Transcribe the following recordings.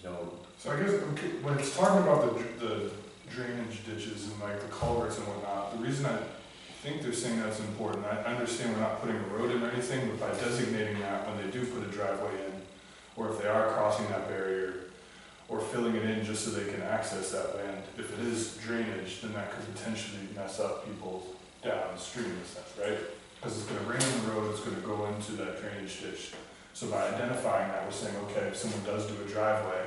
So I guess, okay, when it's talking about the, dr- the drainage ditches and like the culverts and whatnot, the reason I think they're saying that's important, I I understand we're not putting a road in or anything, but by designating that when they do put a driveway in, or if they are crossing that barrier, or filling it in just so they can access that land, if it is drainage, then that could potentially mess up people downstream in a sense, right? Because it's gonna rain on the road, it's gonna go into that drainage ditch. So by identifying that, we're saying, okay, if someone does do a driveway,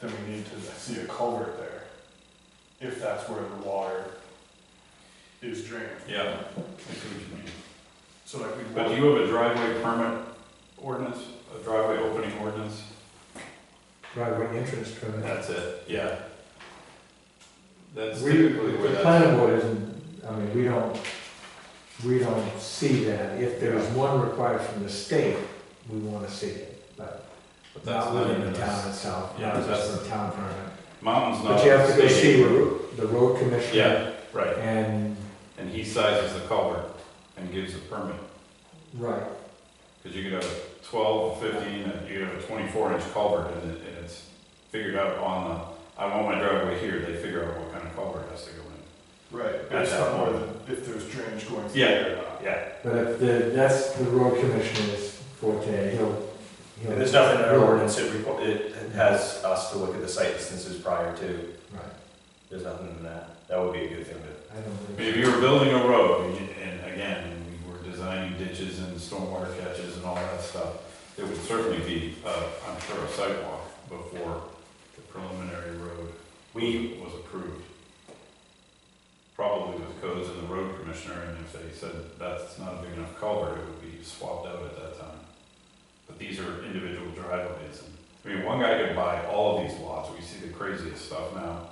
then we need to see a culvert there, if that's where the water is drained. Yeah. I see what you mean. So like we. But do you have a driveway permit ordinance, a driveway opening ordinance? driveway entrance permit. That's it, yeah. That's We- typically where The that's, planning board isn't, I mean, we don't, we don't see that. If there's one required from the state, we wanna see it, but but that's not not within even the town this. itself, Yeah, not just that's- the town permit. Mountain's not. But you have to go state. see the ro- the road commissioner Yeah, right, and, and he sizes the culvert and gives a permit, right, because you could have a twelve, fifteen, and you could have a twenty-four inch culvert, and it, and it's figured out on the, I want my driveway here, they figure out what kind of culvert has to go in. Right, At based that on whether, if there's drainage going through Yeah. there or not. Yeah, but if the, that's the road commissioner's forte, he'll, he'll. And there's nothing in our he'll- ordinance, it, requ- it has us to look at the site distances prior to, Right, there's nothing in that. That would be a good thing to, I don't if think, you were building a road, and you- and again, we were designing ditches and stormwater catches and all that stuff, there would certainly be, uh, I'm sure, a sidewalk before the preliminary road we, was approved. Probably with codes and the road commissioner, and if they said that's not a big enough culvert, it would be swapped out at that time. But these are individual driveways, and, I mean, one guy could buy all of these lots, we see the craziest stuff now,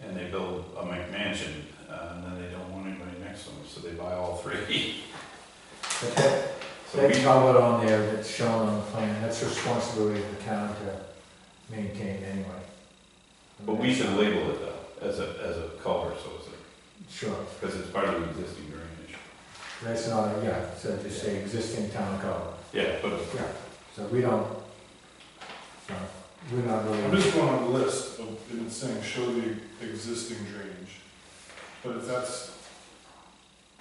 and they build a McMansion, uh, and then they don't want anybody next to them, so they buy all three. but that, So That we, culvert on there that's shown on the plan, that's the responsibility of the town to maintain anyway. but we should label it though, as a, as a culvert, so it's, Sure, because it's part of the existing drainage. that's not, a- yeah, so just say existing town culvert, Yeah, but yeah, so we don't, so we're not I'm really, just going on the list of, and it's saying show the existing drainage. But if that's,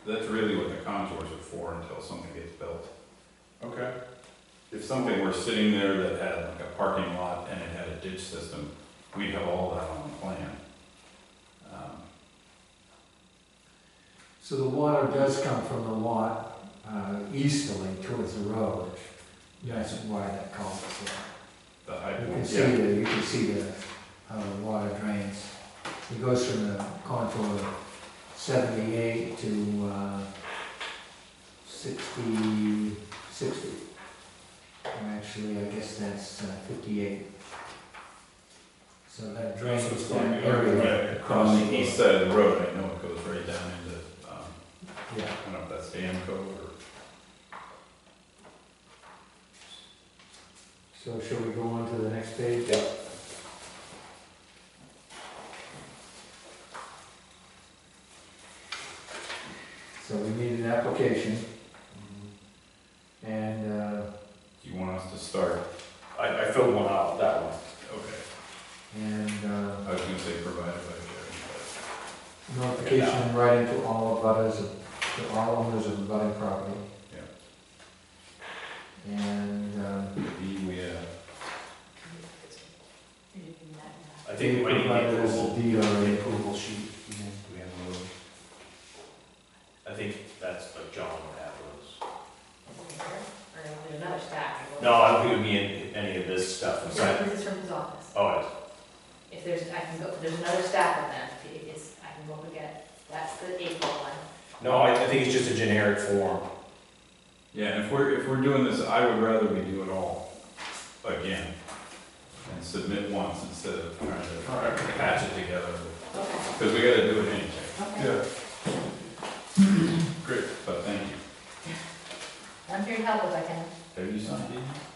That's really what the contours are for until something gets built. okay, If something were sitting there that had like a parking lot and it had a ditch system, we'd have all that on the plan. Um, so the water does come from the lot, uh, easterly towards the road. That's why that culvert's there. The high You can point, see yeah, the, you can see the, how the water drains. It goes from the contour of seventy-eight to, uh, sixty, sixty. Or Actually, I guess that's uh, fifty-eight. So that drains So it's that going the other area. way. across the east side of the road, I know it goes right down into, um, Yeah, I don't know if that's Dam Cove or. so shall we go on to the next page? So we need an application and, uh, Do you want us to start? I, I filled one out, that one. Okay, and, uh, I was gonna say provided by Jerry, Notification in writing to all abutters, to all owners of abutting property. And, um, but the, we, uh, I think we might need provided the as a approval, deed the already. approval sheet. Do we have one of those? I think that's what John would have those. Another stack. No, I don't think it would be in- any of this stuff inside. This is from his office. Oh, it's- If there's, I can go, there's another stack of them, It- it's, I can go and get, that's the April one. no, I, I think it's just a generic form. Yeah, and if we're, if we're doing this, I would rather we do it all again and submit once instead of trying to alright, patch it together, Okay. because we gotta do it anyway, Okay. yeah. but thank you. I'm here to help if I can. Have you signed it?